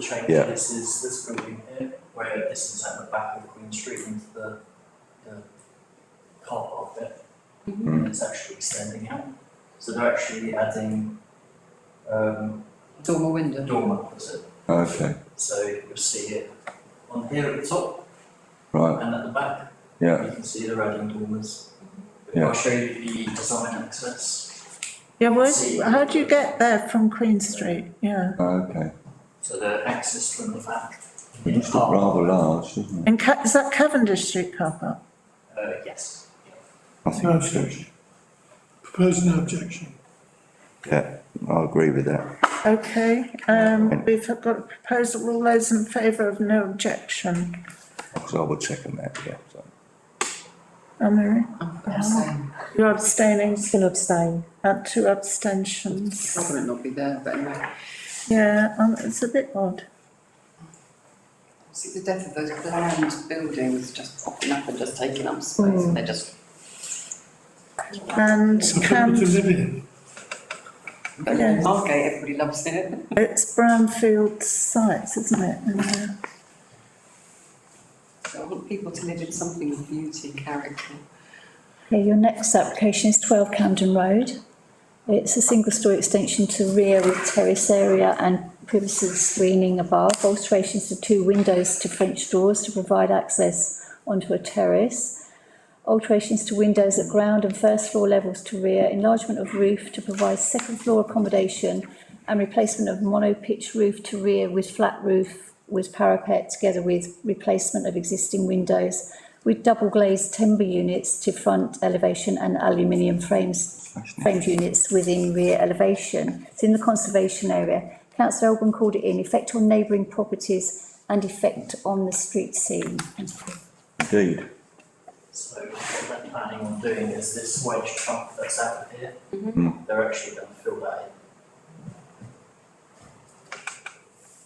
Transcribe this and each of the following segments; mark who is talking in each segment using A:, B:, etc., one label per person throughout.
A: train,
B: Yeah.
A: this is this building here, where this is at the back of Queen Street into the, the car park bit.
C: Mm-hmm.
A: And it's actually extending out, so they're actually adding, um,
C: Dormer
A: a
C: window.
A: dormer, is it?
B: Okay,
A: So you'll see it on here at the top
B: right,
A: and at the back,
B: yeah,
A: you can see they're adding dormers.
B: Yeah.
A: I'll show you the design access,
D: Yeah, where,
A: See.
D: how do you get there from Queen Street? Yeah.
B: okay.
A: so the access from the back.
B: It looks rather large, doesn't it?
D: And Ca- is that Cavendish Street car park?
A: Uh, yes.
B: I think it's huge.
E: Propose no objection.
B: Yeah, I agree with that.
D: Okay, um, we've got a proposal, all those in favour of no objection.
B: So I will check on that, yeah, so.
D: Anne-Marie,
C: I'm saying,
D: you're abstaining,
F: Can abstain.
D: uh, two abstentions.
C: probably not be there, but anyway.
D: Yeah, um, it's a bit odd.
C: See, the death of those bland buildings just popping up and just taking up space, and they're just,
D: And
E: It's a
D: Cam,
E: property to live in.
C: but
D: Yeah.
C: Margate, everybody loves it.
D: it's brownfield sites, isn't it? And, uh,
C: So I want people to live in something of beauty, character.
F: Okay, your next application is twelve Camden Road. It's a single story extension to rear with terrace area and privacy screening above, alterations to two windows to French doors to provide access onto a terrace. Alterations to windows at ground and first floor levels to rear, enlargement of roof to provide second floor accommodation and replacement of mono pitch roof to rear with flat roof with parapet together with replacement of existing windows with double glazed timber units to front elevation and aluminium frames, framed units within rear elevation. It's in the conservation area. Councillor Elbin called it in, effect on neighbouring properties and effect on the street scene.
B: Indeed,
A: So what they're planning on doing is this wedge trunk that's out of here,
D: Mm-hmm.
B: Mm.
A: they're actually gonna fill that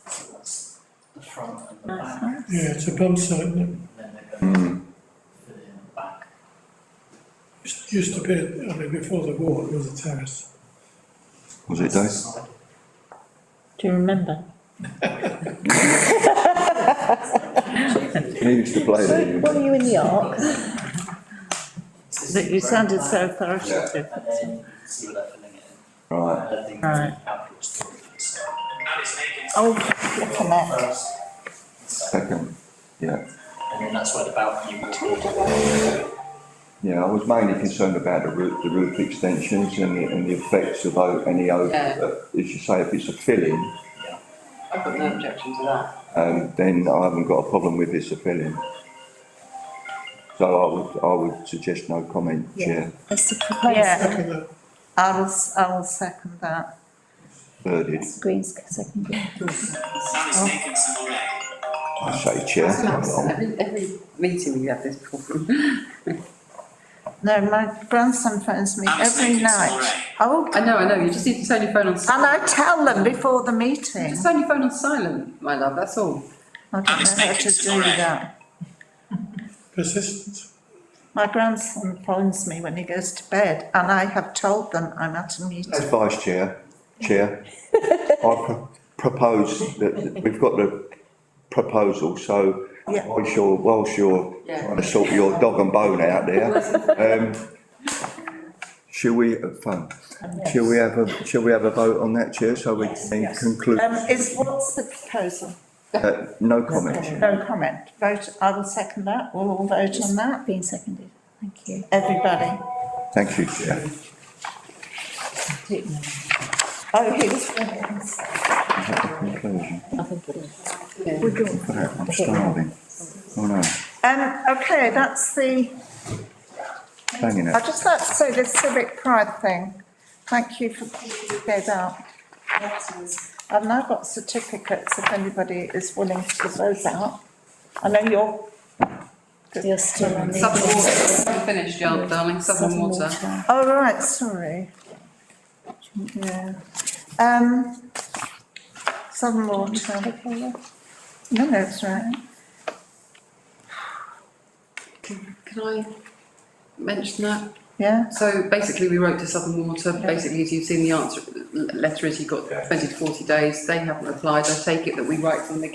A: in. So that's the front and the back, and
E: Yeah, it's a bump site, isn't it?
A: then they're gonna
B: mm,
A: fill in the back.
E: Used- Used to be, I mean, before the war, it was a terrace.
B: was it
A: That's the
B: Dave?
A: side.
D: Do you remember?
B: He used to play there. you know.
F: are you in the arc?
D: That you sounded so authoritative.
A: And then you can see where they're filling it in.
B: Right,
A: And I think
D: Right.
A: outdoor storage, so.
D: Oh, look at that.
A: First, second,
B: second, yeah.
A: and then that's where the balcony will be.
B: Yeah, I was mainly concerned about the roof, the roof extensions and the, and the effects of o- any over,
C: Yeah.
B: uh, as you say, if it's a filling,
C: I've got no objection to that.
B: um, then I haven't got a problem with it's a filling. So I would, I would suggest no comment, Chair.
F: That's the
D: Yeah.
F: proposal.
E: Second, uh,
D: I'll, s- I'll second that.
B: Thirded,
F: Green's second.
B: I say Chair.
C: That's
B: I'm wrong.
C: Every, every meeting we have this problem.
D: No, my grandson phones me every night. Oh,
C: I know, I know, you just need to turn your phone on
D: and
C: silent.
D: I tell them before the meeting.
C: Just turn your phone on silent, my love, that's all.
D: I don't know how to do that.
E: persistence.
D: My grandson phones me when he goes to bed and I have told them I'm at a
B: As
D: meeting.
B: Vice Chair, Chair, I pro- propose that, that we've got the proposal, so
D: Yeah.
B: whilst you're, whilst you're
C: Yeah.
B: trying to sort your dog and bone out there, um, shall we, uh, fun, shall we have a, shall we have a vote on that, Chair, so we can conclude?
D: Um, is, what's the proposal?
B: Uh, no comment, Chair.
D: No comment. Vote, I will second that. We'll all vote on that.
F: Being seconded. Thank you.
D: Everybody.
B: Thank you, Chair.
D: Oh, he was.
B: Conclusion,
C: Yeah.
B: Look at that, I'm starving. Oh no,
D: Um, okay, that's the.
B: banging
D: I'd
B: it.
D: just like to say the civic pride thing. Thank you for picking that up. I've now got certificates if anybody is willing to give those out. I know you're,
F: You're still on the.
C: Southern water, I'm finished, yeah, darling, southern water.
D: oh, right, sorry. Yeah. Um, Southern Water. No, no, it's right.
C: Can I mention that?
D: yeah?
C: So basically, we wrote to Southern Water, basically, as you've seen, the answer, letter is you've got twenty to forty days, they haven't replied, I take it that we write them again